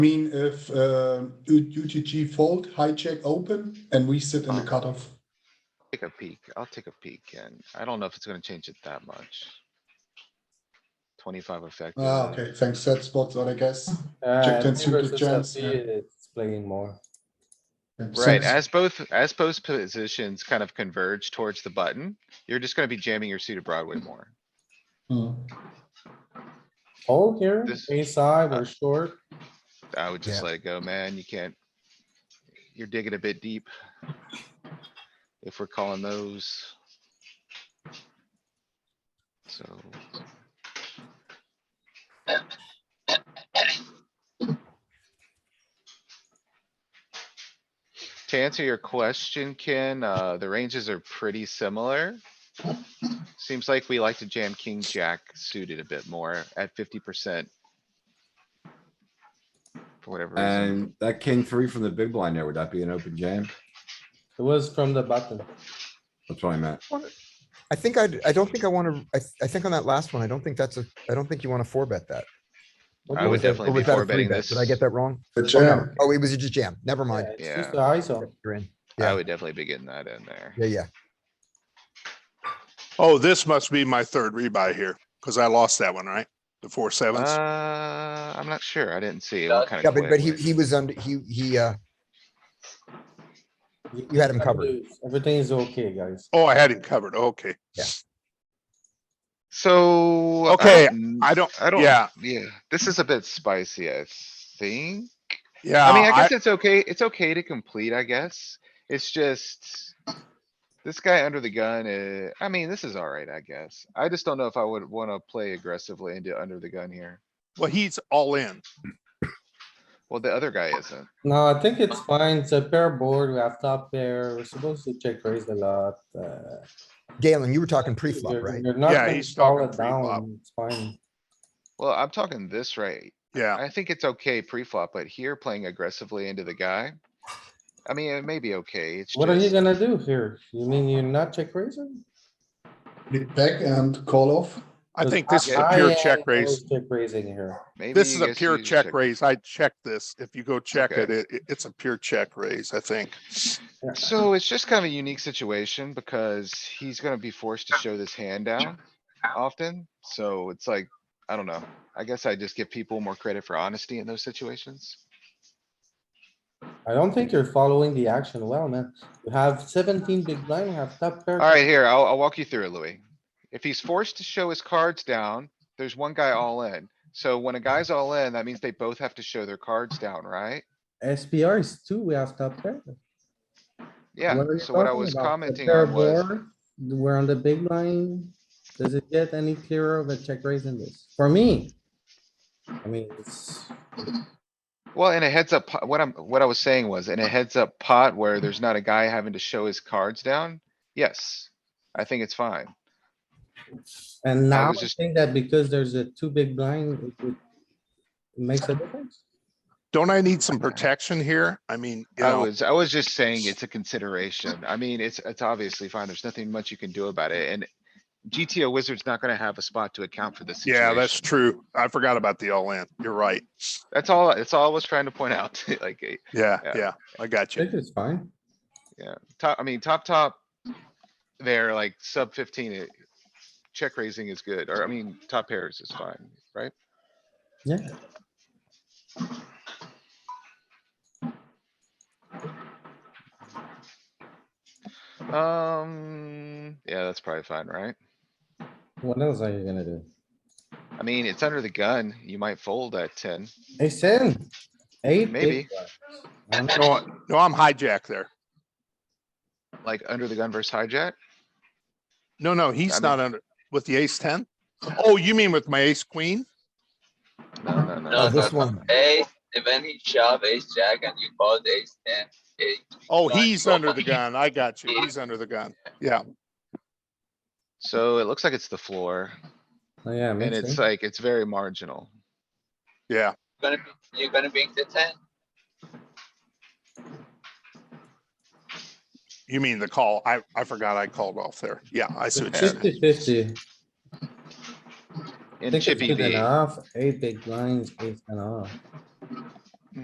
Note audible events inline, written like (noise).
mean, if uh, U- UTG fold, hijack open, and we sit in the cutoff. Take a peek. I'll take a peek and I don't know if it's gonna change it that much. Twenty-five effective. Ah, okay, thanks. That's spots, I guess. Uh, Check ten me suited versus jams, LP, yeah. It's playing more. And Right, since- as both, as both positions kind of converge towards the button, you're just gonna be jamming your suited Broadway more. Hmm. Hold here, This- a side uh, or short. I would just let it go, man. You can't. You're digging a bit deep. If we're calling those. So. To answer your question, Ken, uh, the ranges are pretty similar. Seems like we like to jam king, jack suited a bit more at fifty percent. For whatever reason. And that king three from the big blind there, would that be an open jam? It was from the button. That's what I meant. I think I, I don't think I wanna, I, th- I think on that last one, I don't think that's a, I don't think you wanna four bet that. What I do you would think? definitely Or be was that a four betting three bet? Did I this. get that wrong? The Oh, no. jam. Oh, it was a jam. Never mind. Yeah, it's just Yeah. the ISO. You're in. I Yeah. would definitely be getting that in there. Yeah, yeah. Oh, this must be my third rebuy here, because I lost that one, right? The four sevens. Uh, I'm not sure. I didn't see what kind Yeah, of. but, but he, he was under, he, he, uh, you had him gotta covered. lose. Everything is okay, guys. Oh, I had it covered. Okay. So. I Okay, don't- I don't, I don't. yeah, Yeah, this is a bit spicy, I think. yeah. I mean, I guess it's okay. It's okay to complete, I guess. It's just. This guy under the gun, uh, I mean, this is alright, I guess. I just don't know if I would wanna play aggressively into under the gun here. Well, he's all in. Well, the other guy isn't. No, I think it's fine. It's a pair board. We have top pair. We're supposed to check raise a lot. uh, Galen, you were talking pre-flop, you're- (laughs) right? You're not Yeah, gonna he's call talking it pre-flop. down. It's fine. Well, I'm talking this right. Yeah. I think it's okay pre-flop, but here playing aggressively into the guy. I mean, it may be okay. It's What are you just, gonna do here? You mean you're not check raising? Lead back and call off. I Because think this is a I- pure I check always raise. Check raising here. maybe This you is a guys pure use check raise. I checked this. If you go check it, Okay. it, it- it's a pure check raise, I think. So it's just kind of a unique situation because he's gonna be forced to show this hand down often. So it's like, I don't know. I guess I just give people more credit for honesty in those situations. I don't think you're following the action well, man. You have seventeen big blind, you have top pair. Alright, here, I'll, I'll walk you through it, Louis. If he's forced to show his cards down, there's one guy all in. So when a guy's all in, that means they both have to show their cards down, right? SPR is two, we have top pair. Yeah, are you so what I talking was about? The commenting pair on was, board, We're on the big line. Does it get any clearer of a check raise in this? For me. I mean, it's, well, in a heads up, po- what I'm, what I was saying was, in a heads up pot where Mm-hmm. there's not a guy having to show his cards down, yes. I think it's fine. and now I was just- think that because there's a two big blind, it would. it Makes a difference. Don't I need some protection here? I mean, you I know. was, I was just saying it's a consideration. I mean, it's, it's obviously fine. There's nothing much you can do about it and GTO Wizard's not gonna have a spot to account for this Yeah, that's situation. true. I forgot about the all in. You're right. That's all, that's all I was trying to point out, (laughs) like, eh, Yeah, Yeah. yeah. I I got you. think it's fine. top, I mean, top, top. They're like sub fifteen, eh, check raising is good, or I mean, top pairs is fine, right? Yeah. Um, yeah, that's probably fine, right? What else are you gonna do? I mean, it's under the gun. You might fold at ten. Hey, Sin. Eight. big Maybe. blinds. I don't know. No, I- no, I'm hijack there. like under the gun versus hijack? No, no, I he's mean- not under, with the ace ten? Oh, you mean with my ace queen? No, no, Oh, No, no. no. this one. Ace, when he shove ace jack and you called ace ten, eh, Oh, Right, he's so- under the gun. I got you. He's under the gun. Yeah, So it looks like it's the floor Oh, Yeah. and makes it's sense. like, it's very marginal. yeah. gonna be, you're gonna bring the ten. You mean the call? I, I forgot I called off there. Yeah, I see what you Yeah. 50 mean. 50. In Think it's Chippy good V, enough. Eight big blinds, eight and off.